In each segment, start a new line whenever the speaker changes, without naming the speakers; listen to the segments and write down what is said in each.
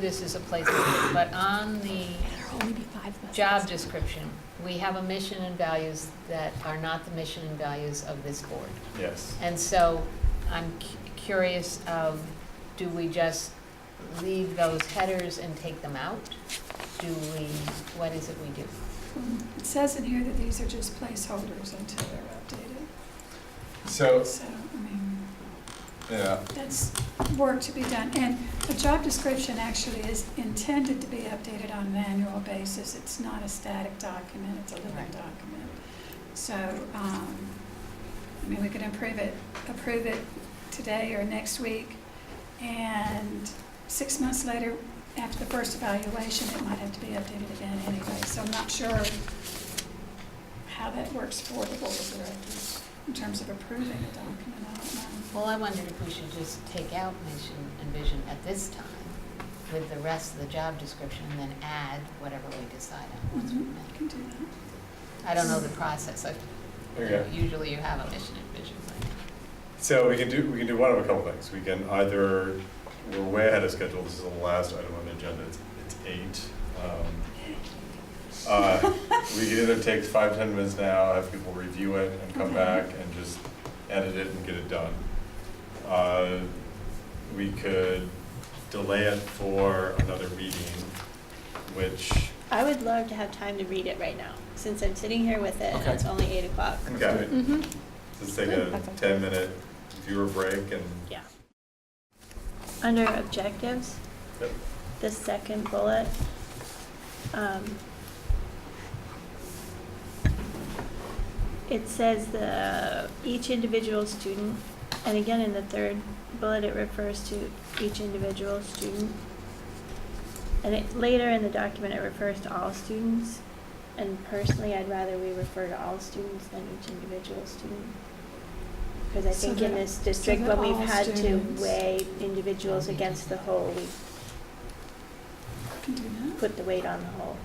this is a place, to put, but on the job description, we have a mission and values that are not the mission and values of this board.
Yes.
And so I'm cu- curious of, do we just leave those headers and take them out? Do we, what is it we do?
It says in here that these are just placeholders until they're
So,
updated, so, I mean,
yeah,
that's work to be done. And the job description actually is intended to be updated on an annual basis. It's not a static document, it's a living
Right.
document. So, um, I mean, we could improve it, approve it today or next week. And six months later, after the first evaluation, it might have to be updated again anyway. So I'm not sure how that works for the board of directors in terms of approving a document. I don't know.
Well, I wondered if we should just take out mission and vision at this time with the rest of the job description and then add whatever we decide on once we
Mhm.
make.
Can do that.
I don't know the process. I-
okay.
Usually you have a mission and vision, but.
So we can do, we can do one of a couple things. We can either, we're way ahead of schedule, this is the last item on the agenda, it's, it's eight. Um, uh, We can either take five, ten minutes now, have people review it and come
Okay.
back and just edit it and get it done. Uh, We could delay it for another meeting, which,
I would love to have time to read it right now, since I'm sitting here with it and
Okay.
it's only eight o'clock.
okay,
Mm-hmm.
let's take a ten minute viewer break and
Yeah. Under objectives,
Yep.
the second bullet, um, it says the, each individual student, and again in the third bullet, it refers to each individual student. And it, later in the document, it refers to all students, and personally, I'd rather we refer to all students than each individual student. Because I
So
think in
that-
this district,
that
when we've
all
had to
students-
weigh individuals against the whole, we
Can do that.
put the weight on the whole.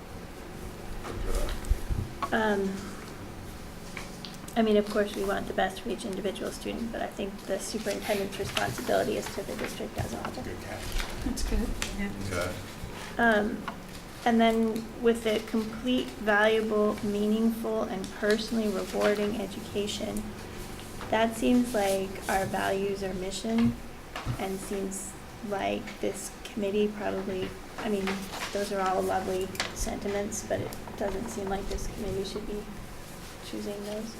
look it up.
Um, I mean, of course, we want the best for each individual student, but I think the superintendent's responsibility is to the district as a whole.
Good catch.
That's good.
Okay.
Um, and then with the complete, valuable, meaningful, and personally rewarding education, that seems like our values or mission, and seems like this committee probably, I mean, those are all lovely sentiments, but it doesn't seem like this committee should be choosing those.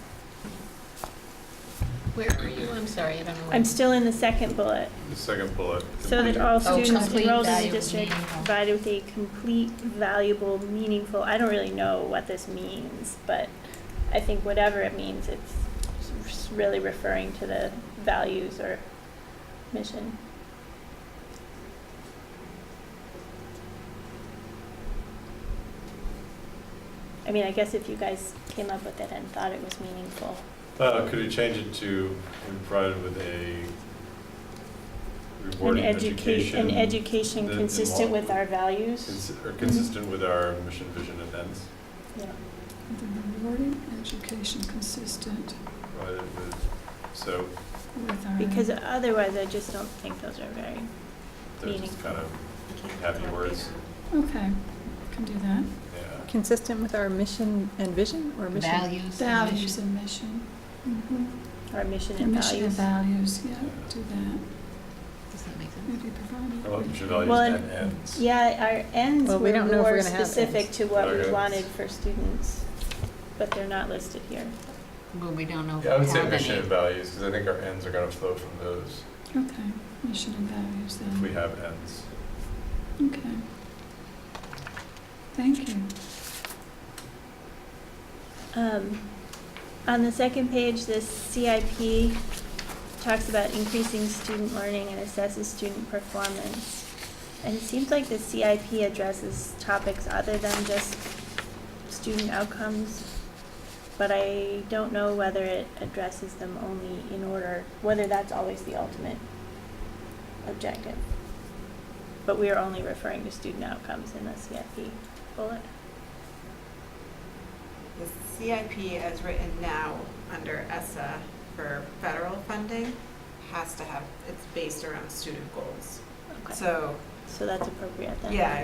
Where are you? I'm sorry, I don't know. where-
I'm still in the second bullet.
The second bullet.
So that all
Oh,
students
complete,
enrolled in the
valuable,
district
meaningful.
provided with a complete, valuable, meaningful, I don't really know what this means, but I think whatever it means, it's s- really referring to the values or mission. I mean, I guess if you guys came up with it and thought it was meaningful,
Uh, could we change it to, we provided with a
an
rewarding
education,
education?
an education
that
consistent with our values,
cons- Or consistent with our mission, vision, and ends,
you know.
The rewarding education consistent
provided with, so
with our.
Because uh, otherwise, I just don't think those are very,
they're just
Meaning.
kind of happy words,
Okay, can do that.
yeah.
Consistent with our mission and vision or mission?
Values. and
Values
mission.
and mission. Mm-hmm.
our mission
And
and
Mission and
values.
values, yeah, do that.
Does that make sense?
Maybe provide.
I love mission, values,
Well,
and ends.
Yeah, our ends
Well, we
were
don't know if we're
more
gonna have
specific
ends.
to what we
Okay.
wanted for students, but they're not listed here.
Well, we don't know if
Yeah, I would
we
say
have
mission
any.
and values, because I think our ends are gonna flow from those,
Okay, mission and values
if
then.
we have ends.
Okay. Thank you.
Um, On the second page, this CIP talks about increasing student learning and assesses student performance. And it seems like the CIP addresses topics other than just student outcomes, but I don't know whether it addresses them only in order, whether that's always the ultimate objective. But we are only referring to student outcomes in the CIP bullet.
The CIP as written now under ESSA for federal funding has to have, it's based around student goals.
Okay.
So
so that's appropriate then.
Yeah,